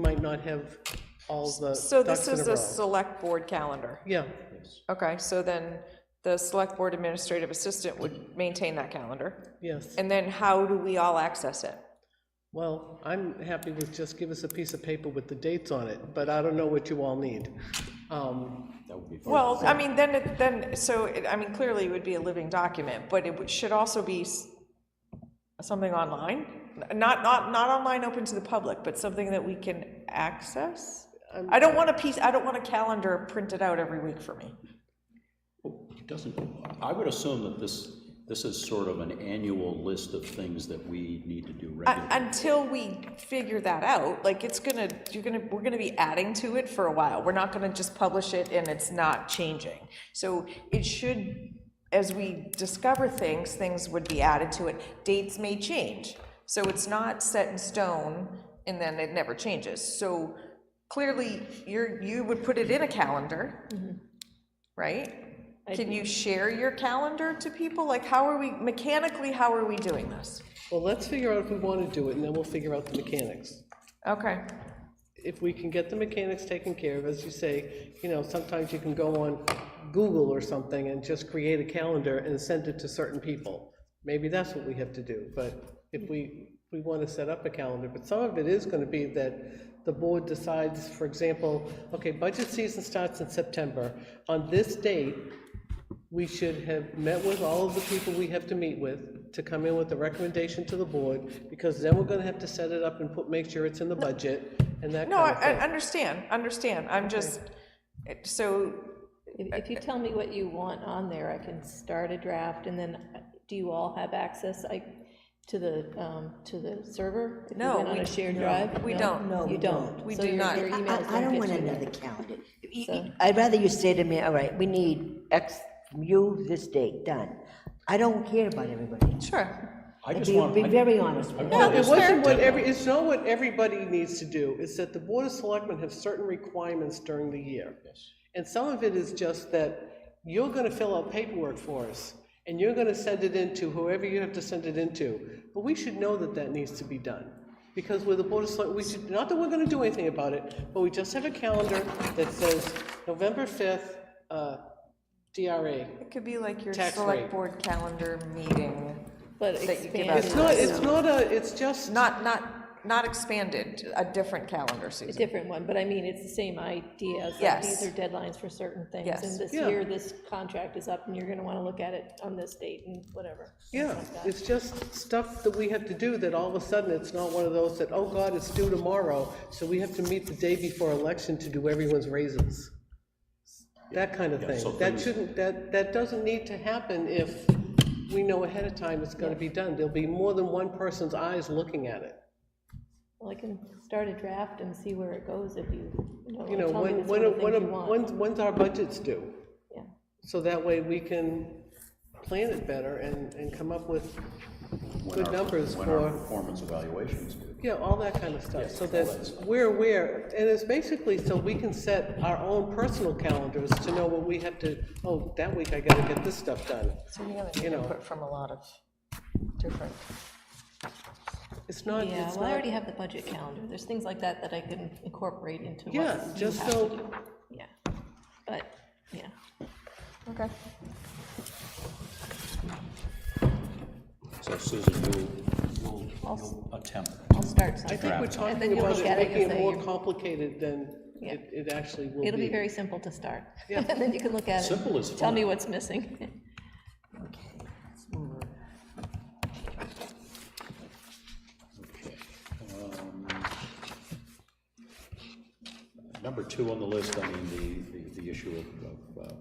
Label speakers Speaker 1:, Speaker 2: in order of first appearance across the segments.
Speaker 1: might not have all the
Speaker 2: So
Speaker 1: ducks
Speaker 2: this
Speaker 1: in a
Speaker 2: is a
Speaker 1: row.
Speaker 2: select board calendar.
Speaker 1: Yeah,
Speaker 2: Okay, so then the select board administrative assistant would maintain that calendar.
Speaker 1: yes.
Speaker 2: And then how do we all access it?
Speaker 1: Well, I'm happy with just give us a piece of paper with the dates on it, but I don't know what you all need. Um,
Speaker 2: Well, I mean, then, it then, so, it- I mean, clearly it would be a living document, but it would- should also be s- something online? Not, not, not online open to the public, but something that we can access?
Speaker 1: Um,
Speaker 2: I don't want a piece, I don't want a calendar printed out every week for me.
Speaker 3: Doesn't, I would assume that this, this is sort of an annual list of things that we need to do
Speaker 2: Un-
Speaker 3: regularly.
Speaker 2: Until we figure that out, like, it's gonna, you're gonna, we're gonna be adding to it for a while. We're not gonna just publish it and it's not changing. So it should, as we discover things, things would be added to it. Dates may change, so it's not set in stone and then it never changes. So clearly, you're, you would put it in a calendar, right? Can you share your calendar to people? Like, how are we, mechanically, how are we doing this?
Speaker 1: Well, let's figure out if we want to do it, and then we'll figure out the mechanics.
Speaker 2: Okay.
Speaker 1: If we can get the mechanics taken care of, as you say, you know, sometimes you can go on Google or something and just create a calendar and send it to certain people. Maybe that's what we have to do, but if we, we want to set up a calendar, but some of it is going to be that the board decides, for example, okay, budget season starts in September. On this date, we should have met with all of the people we have to meet with to come in with a recommendation to the board, because then we're gonna have to set it up and put, make sure it's in the budget and that
Speaker 2: No, I,
Speaker 1: kind of
Speaker 2: I
Speaker 1: thing.
Speaker 2: understand, understand, I'm just, it- so,
Speaker 4: If, if you tell me what you want on there, I can start a draft, and then, uh, do you all have access, I, to the, um, to the server? If you
Speaker 2: No,
Speaker 4: went on
Speaker 2: we-
Speaker 4: a shared drive?
Speaker 2: we don't. No,
Speaker 4: You don't?
Speaker 2: We
Speaker 4: So
Speaker 2: do
Speaker 4: your-
Speaker 2: not.
Speaker 4: your
Speaker 2: I-
Speaker 4: emails
Speaker 5: I, I don't
Speaker 4: get
Speaker 5: want
Speaker 4: you
Speaker 5: another
Speaker 4: that.
Speaker 5: calendar. You-
Speaker 4: So- uh,
Speaker 5: you- I'd rather you say to me, all right, we need X from you this date, done. I don't care about everybody.
Speaker 2: sure.
Speaker 3: I just
Speaker 5: Be,
Speaker 3: want,
Speaker 5: be
Speaker 3: I-
Speaker 5: very honest with me.
Speaker 3: No,
Speaker 1: It wasn't what every, it's not what everybody needs to do, it's that the board of selectmen have certain requirements during the year. And some of it is just that you're gonna fill out paperwork for us, and you're gonna send it in to whoever you have to send it into. But we should know that that needs to be done, because with the Board of Select, we should, not that we're gonna do anything about it, but we just have a calendar that says November fifth, uh, DRA.
Speaker 2: It could be like your
Speaker 1: Tax
Speaker 2: select
Speaker 1: rate.
Speaker 2: board calendar meeting,
Speaker 4: But
Speaker 2: That you give
Speaker 4: expand
Speaker 2: out
Speaker 1: It's
Speaker 2: to
Speaker 4: it,
Speaker 1: not, it's not a, it's just,
Speaker 2: not, not, not expanded, a different calendar,
Speaker 4: a
Speaker 2: Susan.
Speaker 4: different one, but I mean, it's the same idea, it's like,
Speaker 2: Yes.
Speaker 4: these are deadlines for certain things.
Speaker 2: Yes.
Speaker 4: And this
Speaker 1: Yeah.
Speaker 4: year, this contract is up, and you're gonna wanna look at it on this date and whatever.
Speaker 1: yeah, it's just stuff that we have to do that all of a sudden, it's not one of those that, oh God, it's due tomorrow, so we have to meet the day before election to do everyone's raises. That kind of
Speaker 3: so
Speaker 1: thing. That
Speaker 3: things-
Speaker 1: shouldn't, that, that doesn't need to happen if we know ahead of time it's gonna be done. There'll be more than one person's eyes looking at it.
Speaker 4: Well, I can start a draft and see where it goes if you,
Speaker 1: You
Speaker 4: you
Speaker 1: know,
Speaker 4: know, tell me
Speaker 1: when,
Speaker 4: the
Speaker 1: when,
Speaker 4: sort of
Speaker 1: when,
Speaker 4: things you want.
Speaker 1: when's, when's our budgets due?
Speaker 4: Yeah.
Speaker 1: So that way we can plan it better and, and come up with
Speaker 3: when
Speaker 1: good
Speaker 3: our-
Speaker 1: numbers
Speaker 3: When our
Speaker 1: for.
Speaker 3: performance evaluations do.
Speaker 1: Yeah, all that kind of stuff, so that we're aware, and it's basically so we can set our own personal calendars to know what we have to, oh, that week I gotta get this stuff done.
Speaker 2: So you're gonna need
Speaker 1: You know.
Speaker 2: input from a lot of different,
Speaker 1: It's not,
Speaker 4: Yeah,
Speaker 1: it's
Speaker 4: well, I
Speaker 1: not,
Speaker 4: already have the budget calendar, there's things like that that I can incorporate into what you
Speaker 1: yeah,
Speaker 4: have
Speaker 1: just
Speaker 4: to
Speaker 1: so,
Speaker 4: do. Yeah, but, yeah,
Speaker 2: okay.
Speaker 3: So Susan, you'll, you'll, you'll attempt.
Speaker 4: I'll start
Speaker 1: I
Speaker 4: something.
Speaker 1: think we're
Speaker 3: Draft.
Speaker 4: And
Speaker 1: talking
Speaker 4: then you
Speaker 1: about
Speaker 4: look
Speaker 1: it
Speaker 4: at it and
Speaker 1: making it
Speaker 4: say
Speaker 1: more
Speaker 4: you-
Speaker 1: complicated than
Speaker 4: Yeah.
Speaker 1: it, it actually will be.
Speaker 4: It'll be very simple to start.
Speaker 1: Yeah.
Speaker 4: And then you can look at it.
Speaker 3: Simple is
Speaker 4: Tell me
Speaker 3: fine.
Speaker 4: what's missing.
Speaker 3: Um, Number two on the list, I mean, the, the, the issue of, of, uh,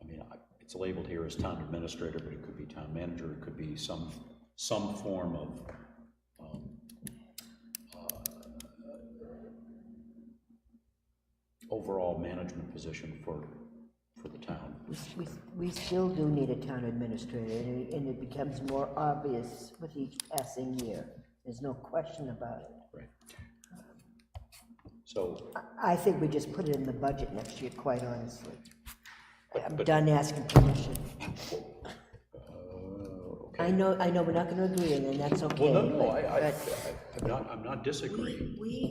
Speaker 3: I mean, I- it's labeled here as town administrator, but it could be town manager, it could be some, some form of, um, uh, overall management position for, for the town.
Speaker 5: We s- We, s- we still do need a town administrator, and it- and it becomes more obvious with each passing year. There's no question about it.
Speaker 3: Right. So,
Speaker 5: I think we just put it in the budget next year, quite honestly. I'm
Speaker 3: but-
Speaker 5: done asking permission.
Speaker 3: Oh,
Speaker 5: I know, I know, we're not gonna agree, and then that's okay.
Speaker 3: well, no, no,
Speaker 5: but-
Speaker 3: I, I,
Speaker 5: but
Speaker 3: I'm not, I'm not disagreeing.
Speaker 5: We